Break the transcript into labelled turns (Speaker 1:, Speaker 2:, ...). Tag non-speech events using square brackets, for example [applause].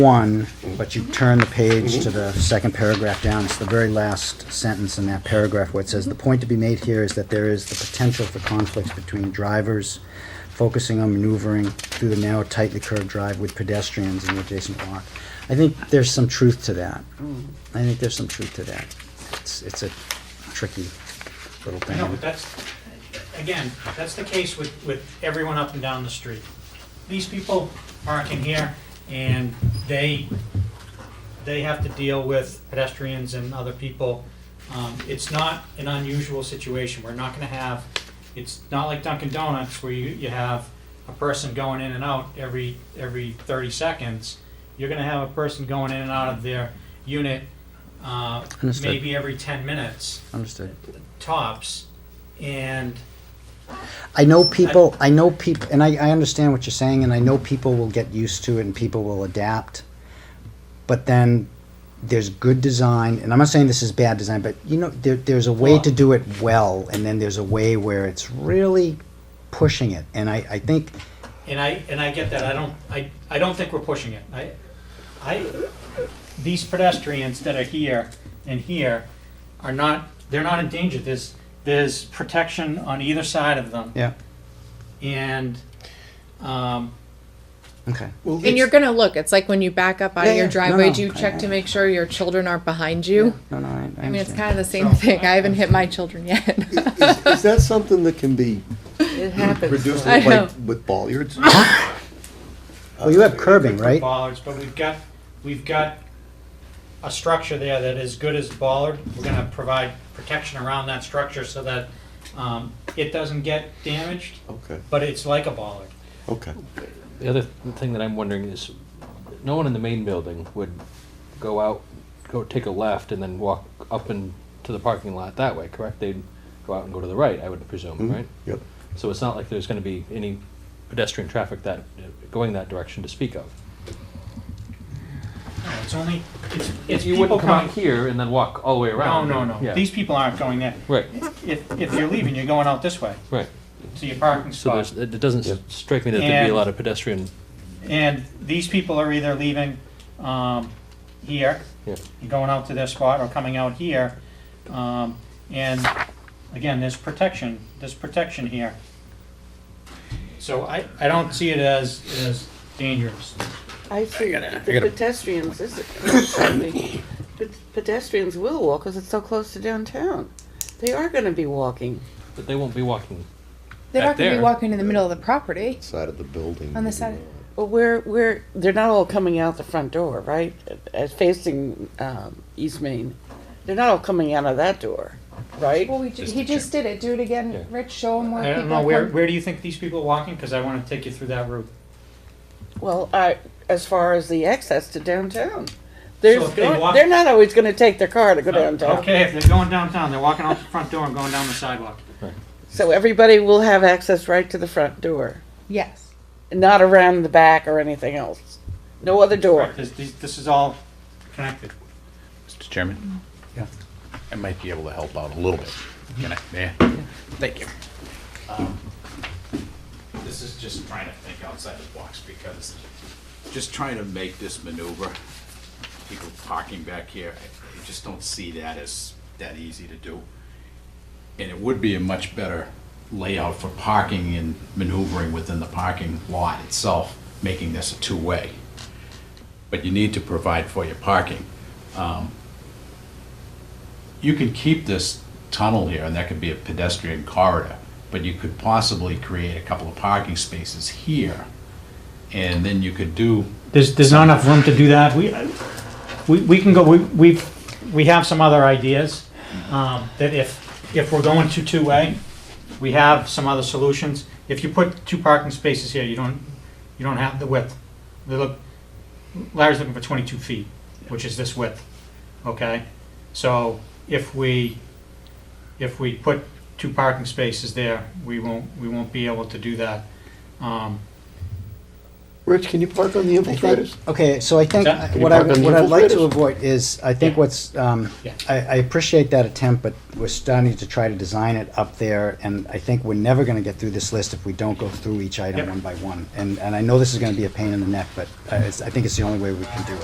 Speaker 1: one, but you turn the page to the second paragraph down, it's the very last sentence in that paragraph where it says, "The point to be made here is that there is the potential for conflicts between drivers focusing on maneuvering through the narrow, tightly curved drive with pedestrians in the adjacent block." I think there's some truth to that. I think there's some truth to that. It's, it's a tricky little thing.
Speaker 2: No, but that's, again, that's the case with, with everyone up and down the street. These people park in here and they, they have to deal with pedestrians and other people. Um, it's not an unusual situation. We're not gonna have, it's not like Dunkin' Donuts where you, you have a person going in and out every, every thirty seconds. You're gonna have a person going in and out of their unit, uh,
Speaker 1: Understood.
Speaker 2: maybe every ten minutes
Speaker 1: Understood.
Speaker 2: tops, and
Speaker 1: I know people, I know people, and I, I understand what you're saying, and I know people will get used to it and people will adapt. But then there's good design, and I'm not saying this is bad design, but you know, there, there's a way to do it well, and then there's a way where it's really pushing it. And I, I think,
Speaker 2: and I and I get that. I don't I, I don't think we're pushing it. I I these pedestrians that are here and here are not they're not in danger. There's there's protection on either side of them,
Speaker 1: yeah,
Speaker 2: and um,
Speaker 1: okay.
Speaker 3: And you're gonna look. It's like when you back up out
Speaker 1: Yeah,
Speaker 3: of
Speaker 1: yeah.
Speaker 3: your
Speaker 1: No,
Speaker 3: driveway,
Speaker 1: no.
Speaker 3: do you check to make sure your children aren't behind you?
Speaker 1: No, no, I, I
Speaker 3: I mean, it's
Speaker 1: understand.
Speaker 3: kind of the same
Speaker 2: So,
Speaker 3: thing.
Speaker 2: I-
Speaker 3: I haven't hit my children
Speaker 2: [laughs]
Speaker 3: yet.
Speaker 4: Is, is that something that can be
Speaker 5: It happens.
Speaker 4: reduced
Speaker 3: I know. Uh-huh.
Speaker 4: like with
Speaker 3: [laughs]
Speaker 4: bollards?
Speaker 1: Well, you have curbing, right?
Speaker 2: bollards, but we've got we've got a structure there that is good as bollard. We're going to provide protection around that structure so that um, it doesn't get damaged,
Speaker 4: Okay,
Speaker 2: but it's like a bollard.
Speaker 4: okay. Mm-hmm.
Speaker 6: The other th- thing that I'm wondering is, no one in the main building would go out, go take a left and then walk up and to the parking lot that way, correct? They'd go out and go to the right, I would presume,
Speaker 4: Mhm.
Speaker 6: right?
Speaker 4: Yep.
Speaker 6: So it's not like there's going to be any pedestrian traffic that going that direction to speak of.
Speaker 2: No, it's only it's, it's
Speaker 6: you
Speaker 2: people
Speaker 6: wouldn't come
Speaker 2: coming.
Speaker 6: out here and then walk all the way
Speaker 2: No,
Speaker 6: around.
Speaker 2: no, no.
Speaker 6: Yeah.
Speaker 2: These people aren't going there.
Speaker 6: right,
Speaker 2: If, if you're leaving, you're going out this way
Speaker 6: right.
Speaker 2: to your parking
Speaker 6: So
Speaker 2: spot.
Speaker 6: there's, it it doesn't s strike me that there'd be
Speaker 2: And-
Speaker 6: a lot of pedestrian.
Speaker 2: And these people are either leaving um, here,
Speaker 6: Yeah.
Speaker 2: and going out to their spot, or coming out here. Um, and again, there's protection. There's protection here. So I, I don't see it as as dangerous.
Speaker 5: I see the pedestrians, this is, [coughs] excuse me, but pedestrians will walk because it's so close to downtown. They are gonna be walking.
Speaker 6: But they won't be walking.
Speaker 3: They're not
Speaker 6: Back
Speaker 3: gonna be
Speaker 6: there.
Speaker 3: walking in the middle of the property.
Speaker 4: Side of the building.
Speaker 3: On the side-
Speaker 5: But we're, we're, they're not all coming out the front door, right? Uh, Facing, um, East Main. They're not all coming out of that door, right?
Speaker 3: Well, we ju- he just did it. Do it again,
Speaker 6: Yeah.
Speaker 3: Rich. Show him where
Speaker 2: I don't
Speaker 3: people
Speaker 2: know
Speaker 3: are
Speaker 2: where
Speaker 3: coming-
Speaker 2: where do you think these people are walking? Because I want to take you through that route.
Speaker 5: Well, I, as far as the access to downtown. There's,
Speaker 2: if they walk-
Speaker 5: they're not always gonna take their car to go downtown.
Speaker 2: Okay, if they're going downtown, they're walking out the front door and going down the sidewalk.
Speaker 5: So everybody will have access right to the front door,
Speaker 3: Yes.
Speaker 5: not around the back or anything else. No other door.
Speaker 2: Correct. This, this this is all connected.
Speaker 7: Mr. Chairman?
Speaker 1: Yeah.
Speaker 7: I might be able to help out a little bit. Can I? Yeah. Thank you. This is just trying to think outside the box because just trying to make this maneuver, people parking back here, I I just don't see that as that easy to do. And it would be a much better layout for parking and maneuvering within the parking lot itself, making this a two-way. But you need to provide for your parking you could keep this tunnel here, and that could be a pedestrian corridor, but you could possibly create a couple of parking spaces here, and then you could do,
Speaker 2: There's, there's not enough room to do that. We, we, we can go, we, we've, we have some other ideas, um, that if, if we're going to two-way, we have some other solutions. If you put two parking spaces here, you don't, you don't have the width. They look, Larry's looking for twenty-two feet, which is this width, okay? So if we, if we put two parking spaces there, we won't, we won't be able to do that. Um,
Speaker 4: Rich, can you park on the infiltrators?
Speaker 1: Okay, so I think
Speaker 2: Can
Speaker 4: you
Speaker 1: what I,
Speaker 4: park on the
Speaker 1: what I'd like to
Speaker 4: infiltrators?
Speaker 1: avoid is, I think
Speaker 2: Yeah.
Speaker 1: what's, um,
Speaker 2: Yeah.
Speaker 1: I, I appreciate that attempt, but we're starting to try to design it up there, and I think we're never gonna get through this list if we don't go through each item
Speaker 2: Yep.
Speaker 1: one by one. And, and I know this is gonna be a pain in the neck, but I, it's- I uh, think it's the only way we can do it.